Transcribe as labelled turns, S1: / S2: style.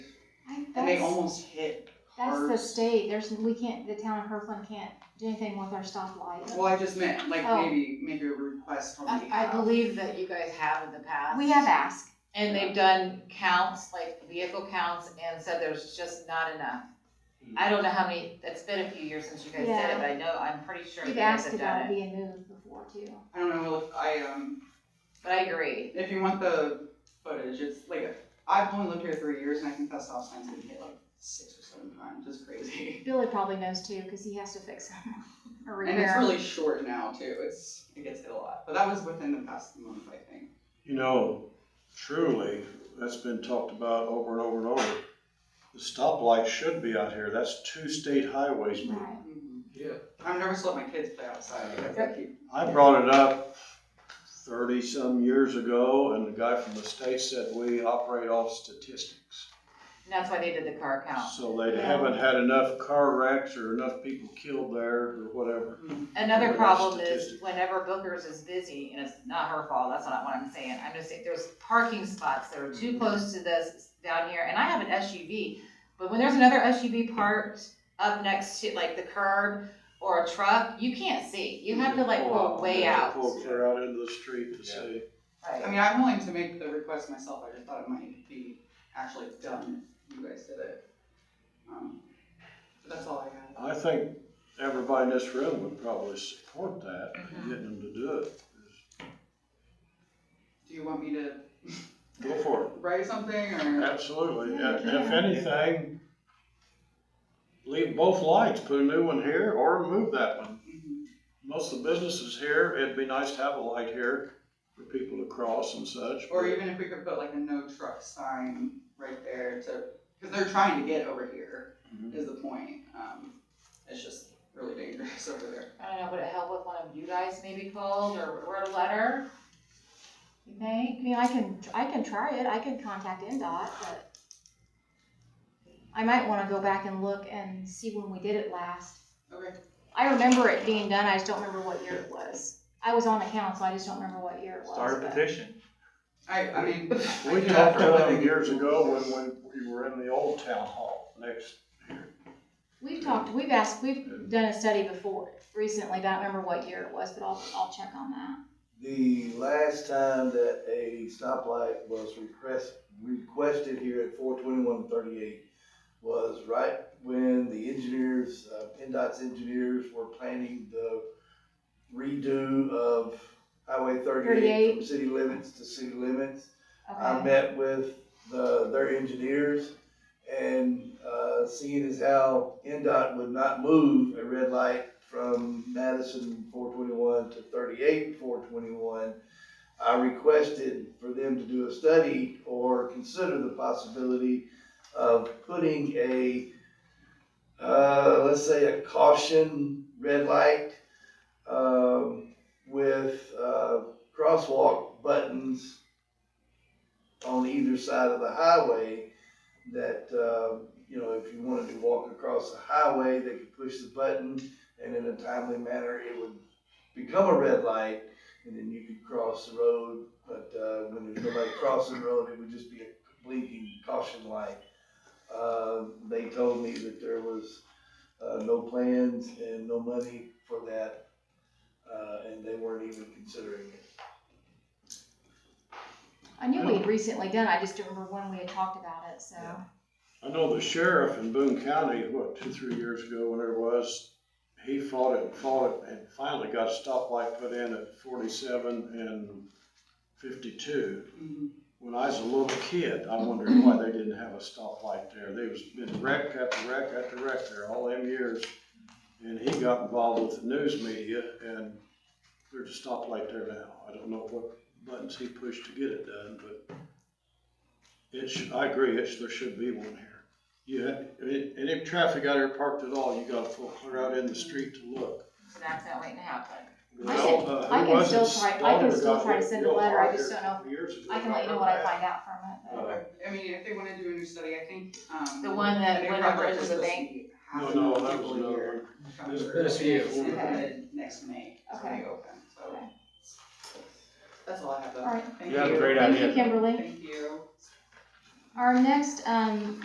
S1: they
S2: That's-
S1: almost hit
S2: That's the
S1: cars.
S2: state, there's, we can't, the town of Kirkland can't do anything with our stoplight.
S1: Well, I just meant, like,
S2: Oh.
S1: maybe, maybe a request from the.
S3: I, I
S1: uh,
S3: believe that you guys have in the past.
S2: We have asked,
S3: And they've done counts, like vehicle counts, and said there's just not enough. I don't know how many, it's been a few years since you guys did
S2: Yeah.
S3: it, but I know, I'm pretty sure you
S2: we've
S3: guys
S2: asked
S3: have done
S2: about
S3: it.
S2: being moved before too.
S1: I don't know, if I, um,
S3: But I agree.
S1: If you want the footage, it's like I've only lived here three years, and I think that stop sign's been hit like six or seven times. It's crazy,
S2: Billy probably knows too, cause he has to fix them or
S1: and it's
S2: repair them.
S1: really short now too. It's it gets hit a lot, but that was within the past month, I think.
S4: You know, truly, that's been talked about over and over and over. The stoplight should be out here. That's two state highways.
S2: Right.
S5: Yeah.
S1: I've never just let my kids play outside because they keep.
S4: I brought it up thirty some years ago and the guy from the state said we operate off statistics.
S3: And that's why they did the car count.
S4: So they haven't had enough car wrecks or enough people killed there or whatever.
S1: mm-hmm.
S3: Another
S4: Well, that's
S3: problem is
S4: statistics.
S3: whenever Booker's is busy, and it's not her fault, that's not what I'm saying, I'm just saying, there's parking spots that are too close to this down here, and I have an SUV, but when there's another SUV parked up next to, like the curb or a truck, you can't see, you have to like
S4: Pull
S3: pull
S4: out,
S3: way
S4: you have
S3: out.
S4: to Pull clear out into the street to
S5: Yeah.
S4: see.
S1: I
S3: Right.
S1: mean, I'm willing to make the request myself. I just thought it might be actually done if you guys did it. Um, but that's all I got.
S4: I think everybody in this room would probably support that,
S3: Mhm.
S4: getting them to do it.
S1: Do you want me to
S4: Go for it.
S1: write something or?
S4: Absolutely,
S2: Yeah,
S4: and
S2: you
S4: if
S2: can.
S4: anything, leave both lights, put a new one here or remove that one.
S1: Mhm.
S4: Most of the businesses here, it'd be nice to have a light here for people to cross and such.
S1: Or even if we could put like a no truck sign right there to, because they're trying to get over here,
S4: Mhm.
S1: is the point. Um, it's just really dangerous over there.
S3: I don't know, would it help if one of you guys maybe called or wrote a letter? You think?
S2: I mean, I can, I can try it, I can contact NDOT, but I might wanna go back and look and see when we did it last.
S1: Okay.
S2: I remember it being done, I just don't remember what year it was. I was on the council, I just don't remember what year it was.
S6: Start a
S2: but-
S6: petition.
S1: I, I mean. I
S4: We
S1: do that
S4: talked
S1: for a
S4: about it
S1: living.
S4: years ago when, when we were in the old town hall next,
S2: We've talked, we've asked, we've done a study before recently, but I don't remember what year it was, but I'll, I'll check on that.
S7: The last time that a stoplight was request, requested here at four twenty-one thirty-eight was right when the engineers, uh, PennDOT's engineers were planning the redo of Highway thirty-eight
S2: 38.
S7: from city limits to city limits. I
S2: Okay,
S7: met with the, their engineers and, uh, seeing as how NDOT would not move a red light from Madison four twenty-one to thirty-eight four twenty-one, I requested for them to do a study or consider the possibility of putting a, uh, let's say a caution red light, um, with, uh, crosswalk buttons on either side of the highway that, uh, you know, if you wanted to walk across the highway, they could push the button and in a timely manner, it would become a red light and then you could cross the road. But, uh, when there's nobody crossing the road, it would just be a blinking caution light. Uh, they told me that there was, uh, no plans and no money for that, uh, and they weren't even considering it.
S2: I knew we had recently done, it, I just don't remember when we had talked about it, so.
S7: Yeah.
S4: I know the sheriff in Boone County, what, two, three years ago, whenever it was, he fought it, and fought it, and finally got a stoplight put in at forty-seven and fifty-two.
S1: Mhm.
S4: When I was a little kid, I wondered why they didn't have a stoplight there. They was been wreck after wreck after wreck there all them years. And he got involved with the news media and there's a stoplight there now. I don't know what buttons he pushed to get it done, but it should, I agree, it should, there should be one here. You have, and and if traffic out here parked at all, you gotta pull clear out in the street to look.
S3: It's an accident waiting to happen.
S2: I
S4: Well,
S2: should-
S4: uh,
S2: I
S4: who
S2: can
S4: was
S2: still
S4: it?
S2: try- I can
S4: Stoller
S2: still
S4: got
S2: try to
S4: hit
S2: send a
S4: real
S2: letter. I
S4: hard
S2: just
S4: here
S2: don't know
S4: a couple years ago.
S2: I can let you know what I find out from it. but-
S1: I mean, if they wanna do a new study, I think, um.
S3: The one that
S1: new
S3: went over
S1: project
S3: to
S1: is
S3: the
S1: supposed
S3: bank?
S1: to be half
S4: No,
S1: a
S4: no,
S1: million
S4: that was
S1: people a
S4: another
S1: year.
S4: one.
S5: There's been a few.
S1: It's gonna
S2: Okay.
S1: end Next May, it's gonna
S2: Okay.
S1: be open, so.
S2: Okay.
S1: That's all I have though.
S2: All right.
S1: Thank
S5: You have a great
S2: Thank
S5: idea.
S2: you, Kimberly.
S1: Thank you.
S2: Our next, um,